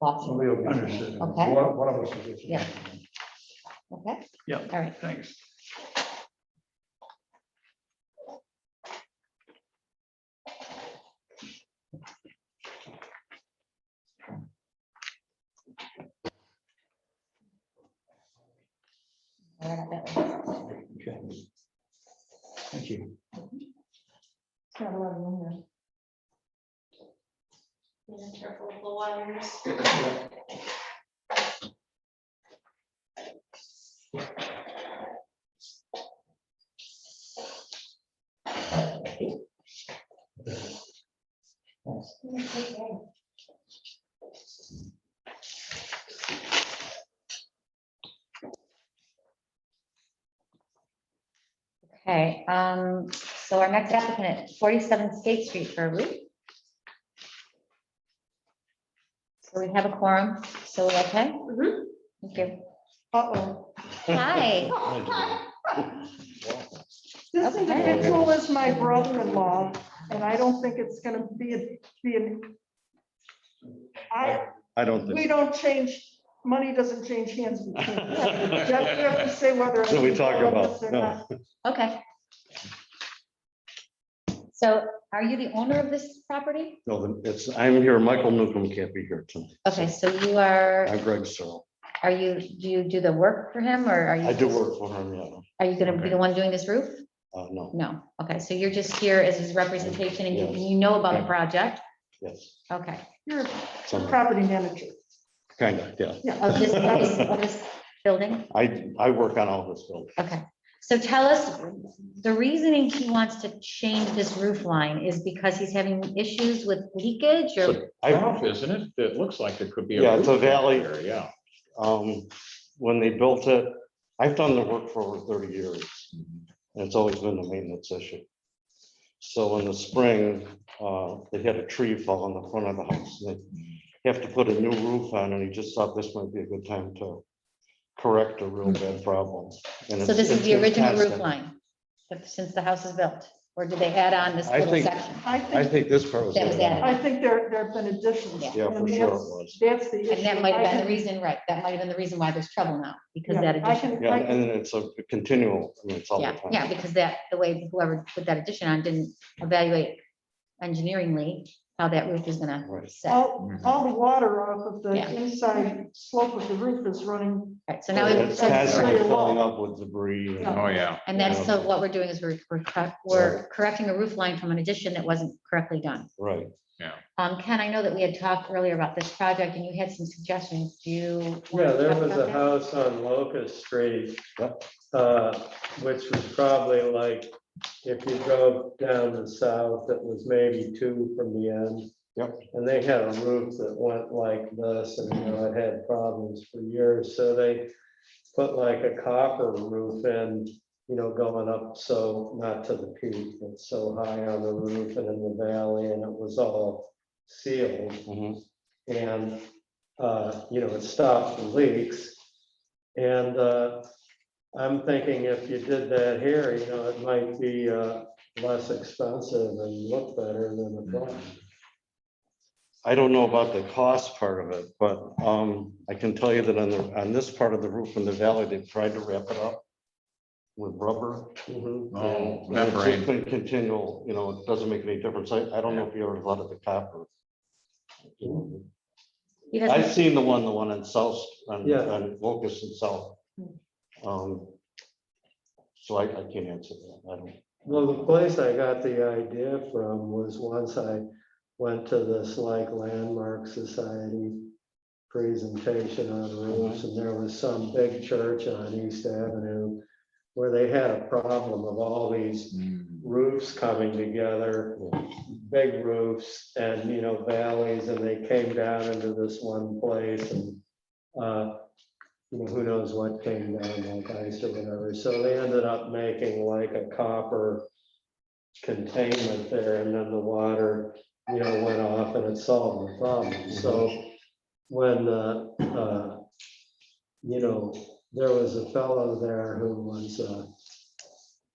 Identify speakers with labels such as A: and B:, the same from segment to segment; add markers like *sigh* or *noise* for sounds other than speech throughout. A: option,
B: Somebody will understand.
A: Okay.
B: One one of us is. interested.
A: Yeah. okay?
B: Yeah.
A: All right,
B: Thanks.
A: all right, that one.
B: Okay. Thank you.
A: It's not a lot of room
C: Yeah, careful with the wires.
A: there. Okay, um, so our next applicant at forty-seven State Street for a roof. So we have a quorum, so we're okay?
C: Mhm.
A: Thank you. Uh-oh. Hi,
D: This
A: Okay.
D: individual is my brother-in-law, and I don't think it's gonna be, a- be an. I,
E: I
A: *laughs*
E: don't think.
D: we don't change, money doesn't change hands
E: *laughs*
D: between us. You have- you have to say whether.
E: What are we talking about?
D: or
E: No.
D: not.
A: okay. So are you the owner of this property?
E: No, then it's, I'm here, Michael Newcomb can't be here tonight.
A: Okay, so you are,
E: I'm Greg Searle.
A: are you, do you do the work for him or are you?
E: I do work for him, yeah.
A: Are you gonna be the one doing this roof?
E: Uh, no,
A: No, okay, so you're just here as his representation and you, you know about the project,
E: yes,
A: okay.
D: You're a
E: some,
D: property manager.
E: kind of, yeah.
A: Of this, of this, of this building,
E: I, I work on all this building.
A: okay. So tell us, the reasoning he wants to change this roof line is because he's having issues with leakage or,
E: I,
F: isn't it? It looks like it could be.
E: Yeah, it's a
F: roof
E: valley.
F: there, Yeah.
E: um, when they built it, I've done the work for over thirty years. And it's always been a maintenance issue. So in the spring, uh, they had a tree fall on the front of the house. and They have to put a new roof on, and he just thought this might be a good time to correct a real bad problem. And
A: so
E: it's-
A: this is
E: it's
A: the
E: been
A: original roof
E: constant.
A: line, but since the house is built, or did they add on this
E: I
A: little
E: think-
A: section?
D: I
E: I
D: think,
E: think this part was.
A: That was added.
D: I think there, there have been additions.
A: Yeah.
E: Yeah, for
D: and
E: sure it
D: that's-
E: was.
D: That's the issue.
A: And that might have
D: I
A: been the
D: can-
A: reason, right, that might have been the reason why there's trouble now, because
D: yeah,
A: that
D: I
A: addition.
D: can-
E: Yeah,
D: I can-
E: and it's a continual, I mean, it's all the
A: Yeah,
E: time.
A: yeah, because that, the way whoever put that addition on didn't evaluate engineeringly how that roof is gonna
E: Right.
A: set.
D: All, all the water off of the
A: Yeah.
D: inside slope of the roof is running
A: Right, so now,
E: It's
A: we-
D: that's-
E: constantly filling up with debris. and-
D: Yeah.
F: Oh, yeah.
A: and that's, so what we're doing is we're, we're cor- we're correcting a roof line from an addition that wasn't correctly done.
E: Right.
A: Um, Ken, I know that we had talked earlier about this project and you had some suggestions, do you? wanna
G: Yeah, there
A: talk
G: was
A: about
G: a
A: that?
G: house on Locust Street,
E: Yep.
G: uh, which was probably like, if you drove down the south, it was maybe two from the end.
E: Yep.
G: And they had a roof that went like this, and you know, it had problems for years, so they put like a copper roof in, you know, going up so, not to the peak, but so high on the roof and in the valley, and it was all sealed.
E: Mhm.
G: And, uh, you know, it stopped the leaks. And, uh, I'm thinking if you did that here, you know, it might be, uh, less expensive and look better than the front.
E: I don't know about the cost part of it, but um, I can tell you that on the, on this part of the roof in the valley, they've tried to wrap it up with rubber.
G: Mhm.
E: and
F: Oh,
E: It's just
F: membrane.
E: been continual, you know, it doesn't make any difference. I, I don't know if you ever thought of the copper.
A: He
E: I've
A: doesn't,
E: seen the one, the one in South, on,
G: Yeah.
E: on Locust and South. Um, So I, I can't answer that. I don't.
G: Well, the place I got the idea from was once I went to this like Landmark Society presentation on roofs, and there was some big church on East Avenue where they had a problem of all these
F: Mm.
G: roofs coming together, big roofs and, you know, valleys, and they came down into this one place and, uh, you know, who knows what came down, like ice or whatever. So they ended up making like a copper containment there, and then the water, you know, went off and it solved the problem. So when, uh, uh, you know, there was a fellow there who was, uh,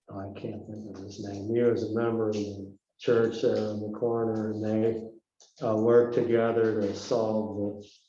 G: Oh, I can't think of his name. He was a member of the church there on the corner and they uh, worked together to solve